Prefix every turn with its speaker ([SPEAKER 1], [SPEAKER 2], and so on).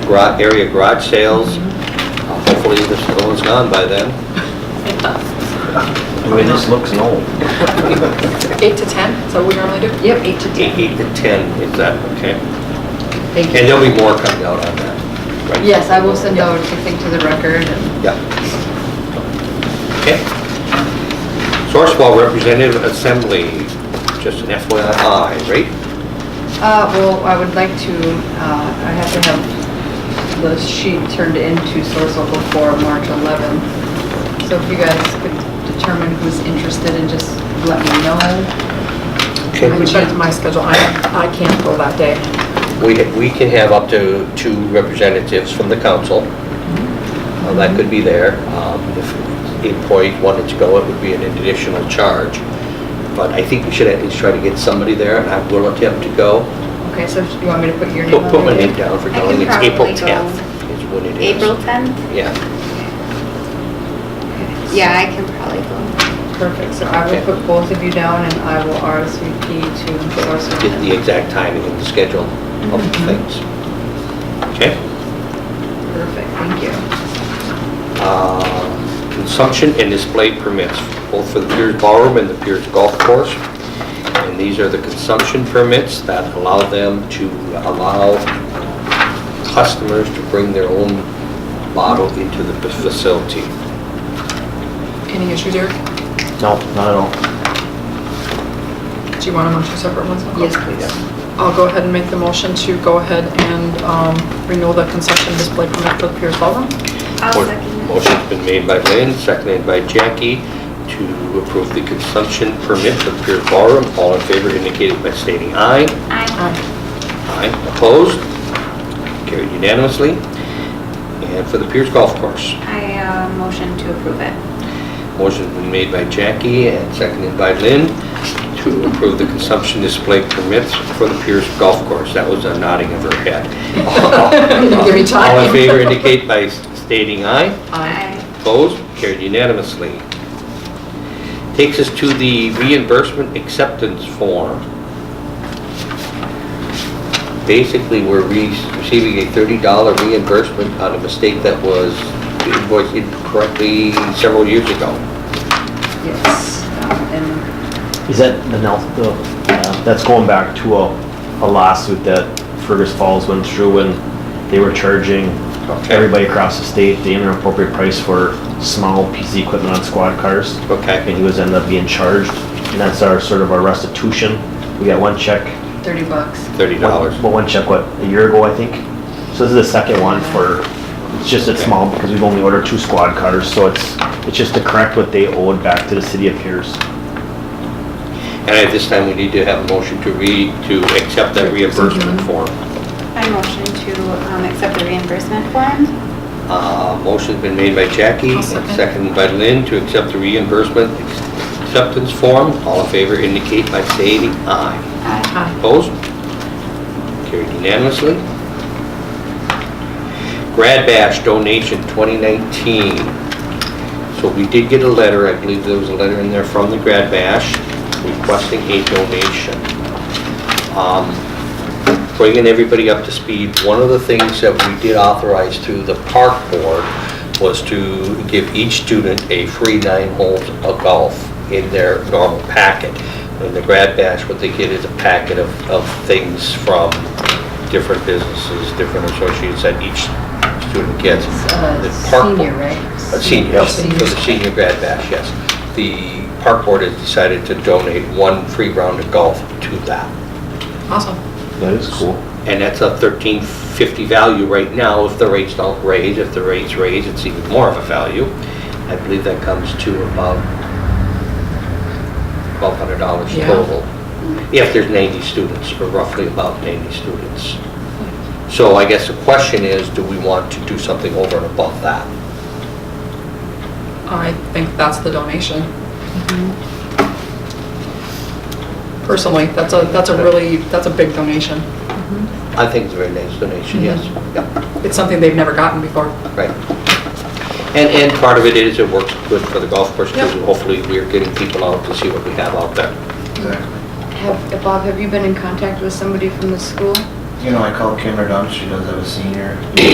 [SPEAKER 1] garage, area garage sales.
[SPEAKER 2] Mm-hmm.
[SPEAKER 1] Uh, Hopefully this other one's gone by then.
[SPEAKER 3] I mean, this looks old.
[SPEAKER 4] Eight to 10, is that what we normally do?
[SPEAKER 2] Yep, eight to
[SPEAKER 1] Eight
[SPEAKER 2] ten.
[SPEAKER 1] eight to 10, is that, okay.
[SPEAKER 2] Thank
[SPEAKER 1] And
[SPEAKER 2] you.
[SPEAKER 1] there'll be more coming out on that. right?
[SPEAKER 2] Yes, I will send out something to the record and
[SPEAKER 1] Yeah. Okay. Sourcewell Representative Assembly, just an FYI, right?
[SPEAKER 2] Uh, well, I would like to, uh, I have to have the sheet turned into Sourcewell before March 11th. So if you guys could determine who's interested and just let me know.
[SPEAKER 4] I
[SPEAKER 1] Can
[SPEAKER 4] checked my schedule, I, I can't go that day.
[SPEAKER 1] We, we can have up to two representatives from the council. Uh, That could be there. Um, If the employee wanted to go, it would be an additional charge. But I think we should at least try to get somebody there, and I will attempt to go.
[SPEAKER 2] Okay, so you want me to put your name
[SPEAKER 1] Put
[SPEAKER 2] on
[SPEAKER 1] put my
[SPEAKER 2] there?
[SPEAKER 1] name down for
[SPEAKER 5] I can
[SPEAKER 1] going. It's April
[SPEAKER 5] probably go.
[SPEAKER 1] 10th is when it is.
[SPEAKER 5] April 10th?
[SPEAKER 1] Yeah.
[SPEAKER 5] Yeah, I can probably go.
[SPEAKER 2] Perfect, so I will
[SPEAKER 1] Okay.
[SPEAKER 2] put both of you down and I will RSVP to
[SPEAKER 1] Get the
[SPEAKER 2] Sourcewell.
[SPEAKER 1] exact timing and the schedule of the
[SPEAKER 2] Mhm.
[SPEAKER 1] things.
[SPEAKER 2] Mm-hmm.
[SPEAKER 1] Okay?
[SPEAKER 2] Perfect, thank you.
[SPEAKER 1] uh, consumption and display permits, both for the Piers Ballroom and the Piers Golf Course. And these are the consumption permits that allow them to allow customers to bring their own bottle into the facility.
[SPEAKER 4] Any issues, Eric?
[SPEAKER 3] No, not at all.
[SPEAKER 4] Do you want them on two separate ones? I'll go-
[SPEAKER 2] Yes, please.
[SPEAKER 4] I'll go ahead and make the motion to go ahead and um, renew the concession display permit for Pierce Ballroom.
[SPEAKER 5] I'll second that.
[SPEAKER 1] Motion's been made by Lynn, seconded by Jackie, to approve the consumption permit for the Piers Ballroom. All in favor indicated by stating aye.
[SPEAKER 5] Aye.
[SPEAKER 1] Aye. Opposed? Carried unanimously. And for the Pierce Golf Course,
[SPEAKER 5] I, uh, motion to approve it.
[SPEAKER 1] motion's been made by Jackie and seconded by Lynn to approve the consumption display permits for the Pierce Golf Course. That was a nodding of her head.
[SPEAKER 4] didn't give me time.
[SPEAKER 1] All in favor indicate by stating aye.
[SPEAKER 5] Aye.
[SPEAKER 1] Opposed? Carried unanimously. Takes us to the reimbursement acceptance form. Basically, we're re- receiving a $30 reimbursement on a mistake that was invoiced incorrectly several years ago.
[SPEAKER 2] Yes, um, and
[SPEAKER 3] Is that the, Nel- the, uh, that's going back to a a lawsuit that Fergus Falls went through when they were charging
[SPEAKER 1] Okay.
[SPEAKER 3] everybody across the state the inappropriate price for small PC equipment on squad cars. And
[SPEAKER 1] Okay.
[SPEAKER 3] he was ended up being charged, and that's our, sort of our restitution. We got one check.
[SPEAKER 2] 30 bucks.
[SPEAKER 1] $30.
[SPEAKER 3] Well, one check, what, a year ago, I think? So this is the second one for, it's just, it's small, because we've only ordered two squad cars, so it's, it's just to correct what they owed back to the city of Pierce.
[SPEAKER 1] And at this time, we need to have a motion to re, to accept that reimbursement form.
[SPEAKER 5] I motion to, um, accept the reimbursement form.
[SPEAKER 1] Uh, Motion's been made by Jackie,
[SPEAKER 4] I'll
[SPEAKER 1] and
[SPEAKER 4] second.
[SPEAKER 1] seconded by Lynn to accept the reimbursement acceptance form. All in favor indicate by stating aye.
[SPEAKER 5] Aye.
[SPEAKER 4] Aye.
[SPEAKER 1] Opposed? Carried unanimously. Grad Bash donation 2019. So we did get a letter, I believe there was a letter in there from the Grad Bash requesting a donation. Um, Bringing everybody up to speed, one of the things that we did authorize through the park board was to give each student a free nine holes of golf in their normal packet. In the grad bash, what they get is a packet of, of things from different businesses, different associates that each student gets.
[SPEAKER 2] It's, uh,
[SPEAKER 1] The park board-
[SPEAKER 2] senior, right?
[SPEAKER 1] a senior, yes,
[SPEAKER 2] Senior.
[SPEAKER 1] for the senior grad bash, yes. The park board has decided to donate one free round of golf to that.
[SPEAKER 4] Awesome.
[SPEAKER 3] That is cool.
[SPEAKER 1] And that's a thirteen fifty value right now. If the rates don't raise, if the rates raise, it's even more of a value. I believe that comes to about twelve hundred dollars
[SPEAKER 4] Yeah.
[SPEAKER 1] total. If there's ninety students, or roughly about ninety students. So I guess the question is, do we want to do something over and above that?
[SPEAKER 4] I think that's the donation.
[SPEAKER 2] Mm-hmm.
[SPEAKER 4] Personally, that's a, that's a really, that's a big donation.
[SPEAKER 1] I think it's a very nice donation, yes. Yep,
[SPEAKER 4] It's something they've never gotten before.
[SPEAKER 1] right. And, and part of it is it works good for the golf course, because
[SPEAKER 4] Yep.
[SPEAKER 1] hopefully we're getting people out to see what we have out there.
[SPEAKER 2] Have, Bob, have you been in contact with somebody from the school?
[SPEAKER 6] You know, I called Kimber Dunn, she does have a senior